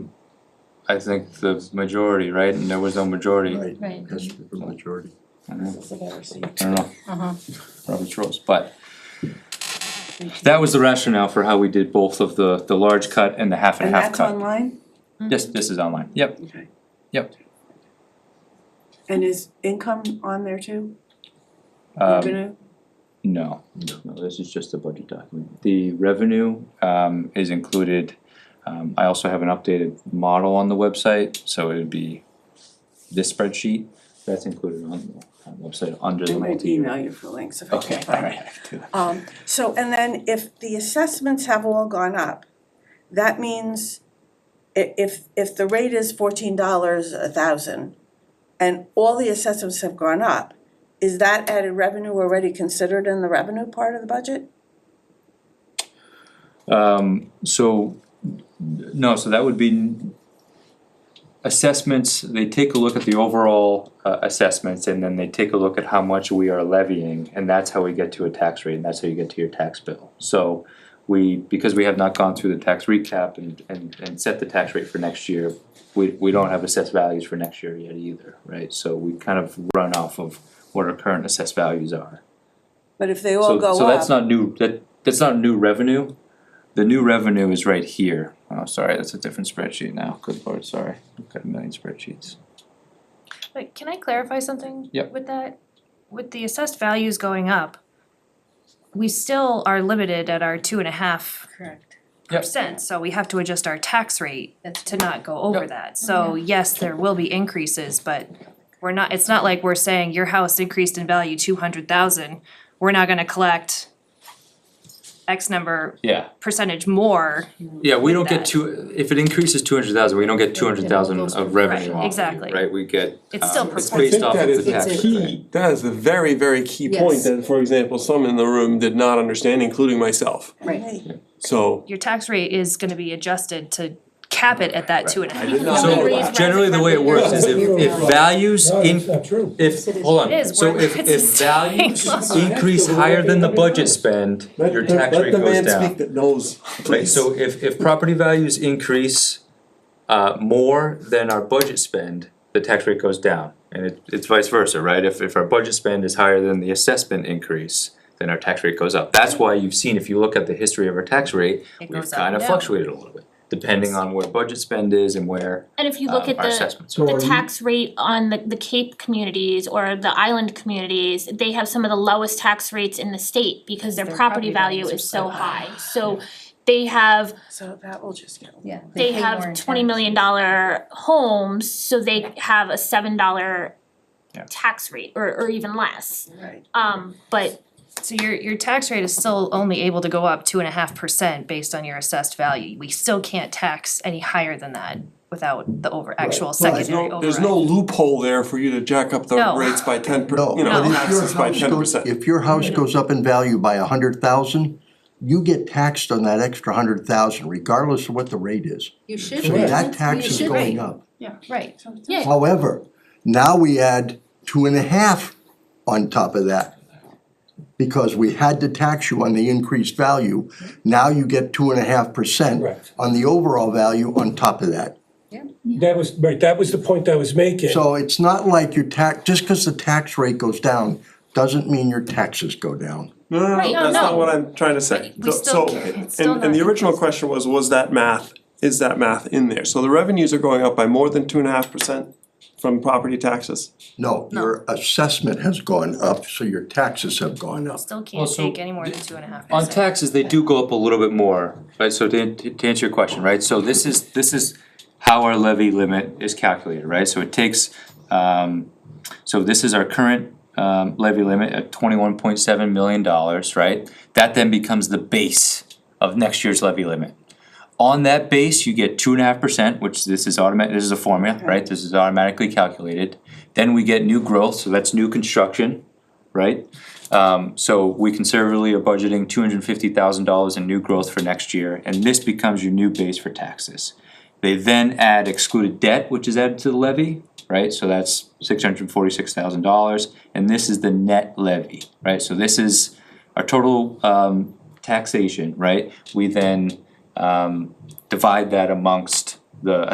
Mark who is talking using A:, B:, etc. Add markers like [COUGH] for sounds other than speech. A: I think the majority, right, and there was no majority, I
B: Right,
C: Right.
B: that's the majority.
A: don't know,
D: This is ever seen.
A: I don't know,
C: Uh-huh.
A: Robert's rules, but. That was the rationale for how we did both of the, the large cut and the half and
D: And
A: half
D: that's
A: cut.
D: online?
A: Yes, this is online, yep,
D: Okay.
A: Yep.
D: And is income on there too?
A: um,
D: Revenue?
A: No, no, this is just a budget document. The revenue um is included. Um I also have an updated model on the website, so it would be this spreadsheet that's included on the uh, website under
D: I
A: the
D: might
A: multi-year.
D: email you for links if I
A: Okay,
D: can't find it.
A: alright, I can do that.
D: Um, so, and then if the assessments have all gone up, that means i- if, if the rate is fourteen dollars a thousand and all the assessments have gone up, is that added revenue already considered in the revenue part of the budget?
A: Um so, no, so that would be assessments, they take a look at the overall uh assessments and then they take a look at how much we are levying and that's how we get to a tax rate and that's how you get to your tax bill. So we, because we have not gone through the tax recap and and and set the tax rate for next year, we we don't have assessed values for next year yet either, right? So we kind of run off of what our current assessed values are.
D: But if they all
A: So,
D: go
A: so that's
D: up,
A: not new, that, that's not new revenue. The new revenue is right here. Oh, sorry, that's a different spreadsheet now. Good lord, sorry. I've got a million spreadsheets.
C: But can I clarify something?
A: Yep.
C: With that, with the assessed values going up, we still are limited at our two and a half
E: Correct.
A: Yep.
C: percent, so we have to adjust our tax rate
E: That's
C: to not go over
A: Yep.
C: that. So yes, there will be increases, but we're not, it's not like we're saying your house increased in value two hundred thousand, we're not gonna collect X number
A: Yeah,
C: percentage more.
A: yeah, we don't
C: that.
A: get two, if it increases two hundred thousand, we don't get two hundred thousand of revenue
C: Right,
A: off of
C: exactly.
A: it, right? We get,
C: It's still
A: um, it's
C: proportional.
A: based off of the tax
E: it's a
A: rate.
E: key
F: That is the very, very key point
E: Yes.
F: that, for example, some in the room did not understand, including myself.
D: right,
F: So
C: Your tax rate is gonna be adjusted to cap it at that two and a half.
F: did not
E: So,
F: know that.
E: raise-
A: generally, the way it works is if, if values
G: No,
A: in,
G: that's not true.
A: if,
E: It is.
A: hold on,
C: It is,
A: so
C: we're-
A: if,
C: [LAUGHS] it's
A: if
C: the same.
A: values
C: That's
A: increase
G: the way
A: higher than the
G: everybody
A: budget
G: does.
A: spend,
F: let,
A: your
F: let-
A: tax
F: let
A: rate
F: the
A: goes
F: man
A: down.
F: speak that knows,
A: Right,
F: please.
A: so if if property values increase uh more than our budget spend, the tax rate goes down. And it it's vice versa, right? If if our budget spend is higher than the assessment increase, then our tax rate goes up. That's why you've seen, if you look at the history of our tax rate,
C: It
A: we've
C: goes up and
A: kind of
C: down.
A: fluctuated a little bit, depending on where budget spend is and where
H: And if you
A: um,
H: look at
A: our
H: the
A: assessments are.
G: So
H: the
G: are you-
H: tax rate on the the Cape communities or the island communities, they have some of the lowest tax rates in the state because their
C: Their
H: property
C: property
H: value
C: values are
H: is
C: so
H: so
C: high.
H: high. So they have,
D: so that will just get.
E: Yeah. pay
H: they
E: more
H: have
E: in
H: twenty
E: tax.
H: million dollar homes, so they have a seven dollar
A: Yeah.
H: tax rate or or even less.
D: Right.
H: Um but
C: So your your tax rate is still only able to go up two and a half percent based on your assessed value. We still can't tax any higher than that without the over actual
F: There's
C: secondary
F: no,
C: override.
F: there's no loophole there for you to jack up the
C: No.
F: rates by ten per,
B: No,
F: you know,
B: but if your
F: taxes by
B: house
F: ten
B: goes,
F: percent.
B: if your house goes up in value by a hundred thousand, you get taxed on that extra hundred thousand regardless of what the rate is.
E: You should.
B: So
E: raise it.
B: that tax
E: You
B: is
E: should raise
B: going
E: it.
B: up.
C: Right,
E: Yeah.
B: However, now we add two and a half on top of that. Because we had to tax you on the increased value, now you get two and a half percent
G: Correct.
B: on the overall value on top of that.
G: That was, right, that was the point I was making.
B: So it's not like your tax, just because the tax rate goes down, doesn't mean your taxes go down.
F: No, no,
H: Right,
F: no,
H: no,
F: that's not
H: no.
F: what I'm trying to say.
C: we
F: So-
C: still
F: so-
C: can't- it's still
F: And, and the
C: not-
F: original question was, was that math, is that math in there? So the revenues are going up by more than two and a half percent from property taxes?
B: No, your assessment has gone up, so your taxes have gone up.
C: still
A: Well,
C: can't
A: so
C: take any more than two and a half
A: On
C: percent.
A: taxes, they do go up a little bit more, right, so to to to answer your question, right, so this is, this is how our levy limit is calculated, right, so it takes, um, so this is our current um levy limit at twenty-one point seven million dollars, right? That then becomes the base of next year's levy limit. On that base, you get two and a half percent, which this is automatic, this is a formula, right, this is automatically calculated. Then we get new growth, so that's new construction, right? Um, so we conservatively are budgeting two hundred and fifty thousand dollars in new growth for next year, and this becomes your new base for taxes. They then add excluded debt, which is added to the levy, right, so that's six hundred and forty-six thousand dollars, and this is the net levy, right, so this is our total, um, taxation, right? We then, um, divide that amongst the